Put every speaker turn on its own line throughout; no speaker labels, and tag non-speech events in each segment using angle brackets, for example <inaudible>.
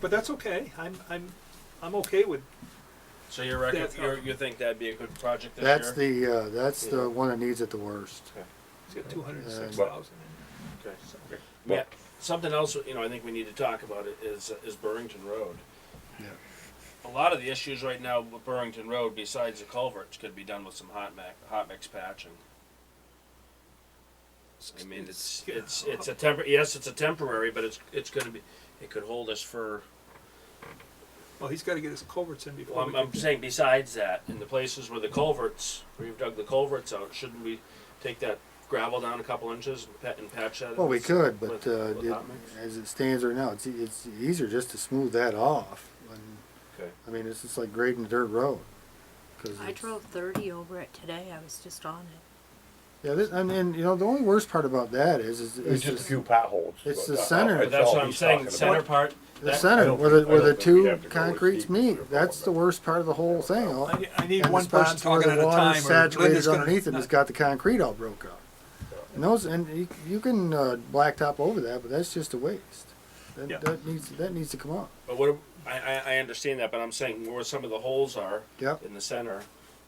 but that's okay. I'm I'm I'm okay with
So you reckon,
That's
you
helpful.
you think that'd be a good project this year?
That's the, uh, that's the one that needs it the worst.
it's got two hundred six thousand.
Okay.
So.
Yeah, something else, you know, I think we need to talk about it is, is Burrington Road.
Yeah.
A lot of the issues right now with Burrington Road, besides the culverts, could be done with some hot mac, hot mix patching. I mean, it's, it's, it's a tempor, yes, it's a temporary, but it's, it's gonna be, it could hold us for,
Well, he's got to get his culverts in before.
well, I'm,
we
I'm
can-
saying besides that, in the places where the culverts, where you've dug the culverts out, shouldn't we take that gravel down a couple inches and pat, and patch that?
Well, we could, but,
with-
uh,
with
it-
hot mix?
as it stands right now, it's, e- it's easier just to smooth that off. And,
Okay.
I mean, it's just like grading a dirt road. 'cause
I
it's-
drove thirty over it today, I was just on it.
Yeah, this, I mean, you know, the only worst part about that is, is
It's
it's
just a
just
few potholes. uh,
it's the
That's
center.
all-
But that's
all
what I'm
he's
saying,
talking
center
about.
part,
the
that-
I
center
don't
where the,
think- I
where the
don't think we'd
two
have to go as
concretes
deep as
meet.
we're
That's the
going,
worst part of the whole thing. all-
I, need- I need
and
one
this person
bond talking
where
at
the
a
water
time.
is
or Linda's
saturated
gonna-
underneath it,
no.
has got the concrete all broke up. And those, and you, you can, uh, blacktop over that, but that's just a waste.
Yeah.
That, that needs, that needs to come up.
But what, I, I, I understand that, but I'm saying where some of the holes are
Yep.
in the center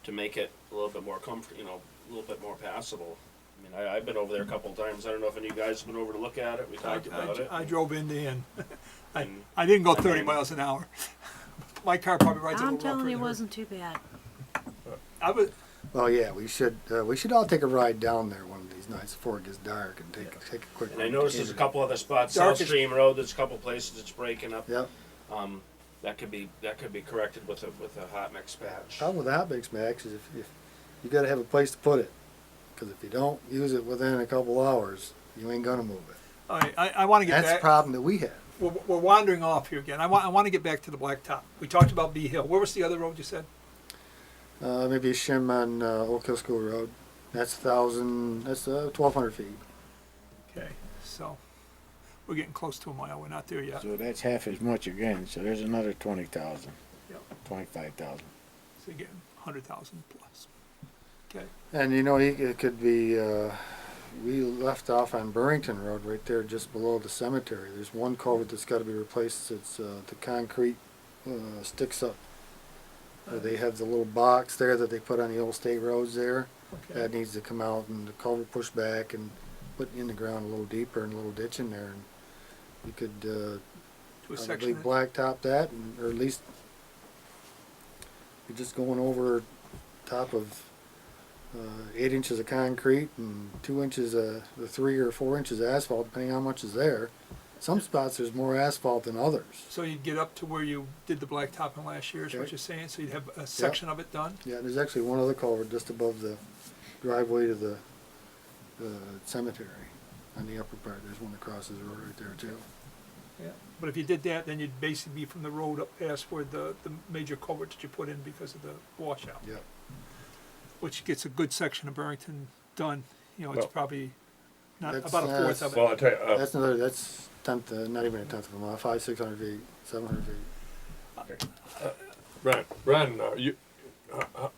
to make it a little bit more comfort, you know, a little bit more passable. I mean, I, I've been over there a couple of times. I don't know if any of you guys have been over to look at it. We
I,
talked about it.
I, I drove in <laughs> there and I,
And-
I didn't go
I
thirty
mean-
miles an hour. <laughs> My car probably rides a little
I'm
rougher.
telling you, it
than
wasn't too bad.
her. I was,
Well, yeah, we should, uh, we should all take a ride down there one of these nights before it gets dark and take, take a quick.
And I noticed there's a couple other spots, South
Darkest-
Stream Road, there's a couple places it's breaking up.
Yep,
Um, that could be, that could be corrected with a, with a hot mix patch.
problem with hot mix, Max, is if, if, you gotta have a place to put it. Cause if you don't use it within a couple hours, you ain't gonna move it.
all right, I, I want to get
That's the
back.
problem that we have.
we're, we're wandering off here again. I want I want to get back to the blacktop. We talked about Bee Hill. Where was the other road you said?
Uh, maybe a shim on uh, Oak Hill School Road. That's a thousand. That's uh, twelve hundred feet.
Okay, so we're getting close to a mile. We're not there yet.
So that's half as much again, so there's another twenty thousand,
Yep.
twenty-five thousand.
So you're getting hundred thousand plus. Okay.
And you know, you- it could be. Uh, we left off on Burrington Road, right there, just below the cemetery. There's one culvert that's got to be replaced. It's uh, the concrete uh, sticks up. Uh, they have the little box there that they put on the old state roads there.
Okay.
That needs to come out and the culvert pushed back and put in the ground a little deeper and a little ditch in there. And you could uh,
to a
probably
section.
blacktop that, and, or at least you're just going over top of uh, eight inches of concrete and two inches of the three or four inches of asphalt, depending how much is there. Some spots there's more asphalt than others.
So you'd get up to where you did the blacktopping last year, is what
Okay.
you're saying? So you'd have a section of it done?
Yeah, there's actually one other culvert just above the driveway to the, the cemetery on the upper part. There's one that crosses the road right there too.
Yeah. But if you did that, then you'd basically be from the road up past where the, the major culvert that you put in because of the washout,
Yeah.
which gets a good section of Burrington done. You know, it's
Well,
probably not
that's,
about a fourth
uh,
of
Well,
it.
I tell you, uh,
That's another, that's tenth, uh, not even a tenth of a mile, five, six hundred feet, seven hundred feet.
Ren, Ren, uh, you, uh, uh,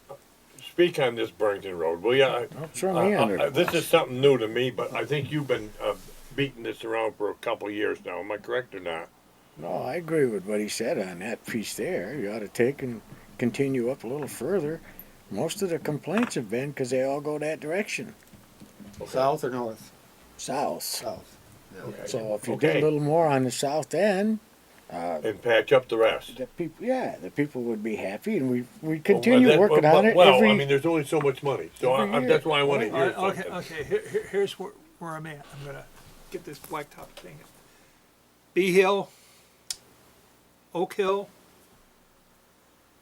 speak on this Burrington Road, will
Oh,
ya? I-
Throw me
Uh,
under.
uh,
the
This
bus.
is something new to me, but I think you've been, uh, beating this around for a couple of years now, am I correct or not?
No, I agree with what he said on that piece there. You ought to take and continue up a little further. Most of the complaints have been because they all go that direction,
South or north?
south.
South.
So if you
Okay.
did a little more on the south end, Uh,
And patch up the rest.
the people, yeah, the people would be happy, and we we
Well,
continue
that-
working on it
Well, I mean,
every.
there's only so much money, so I,
every
I- that's why I wanna
year.
hear
All right, okay,
something.
okay. Here, here- here's where, where I'm at. I'm gonna get this blacktop thing. Bee Hill, Oak Hill,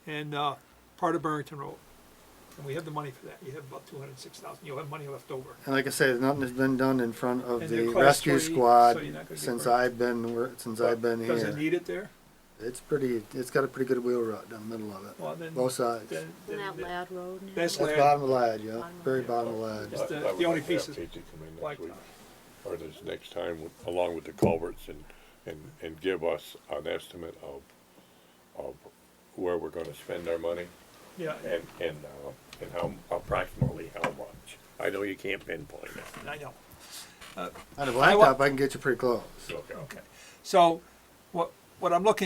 and uh, part of Burrington Road. And we have the money for that. You have about two hundred six thousand. You'll have money left over.
And like I said, nothing has been done in front of
And they're
the
class three,
rescue
so
squad
you're not gonna get
since
hurt.
I've been, wor- since I've been
Does it
here.
need it there?
It's pretty, it's got a pretty good wheel rut down the middle of
Well, then-
it, both sides.
Then-
And
then
that
the
loud road now.
That's
That's
lad-
bottom of the lad, yeah,
Bottom of
very
the
bottom of the
Just
lad.
the-
I- I would
the only uh,
like to have
piece is
Pete to come in next week,
blacktop.
Or this next time, with- along with the culverts and, and, and give us an estimate of, of where we're gonna spend our money.
Yeah,
And, and, uh, and how, approximately how much. I know you can't pinpoint it.
I know.
On the
I wa-
blacktop, I can get you pretty close.
Okay.
Okay. So, what, what I'm looking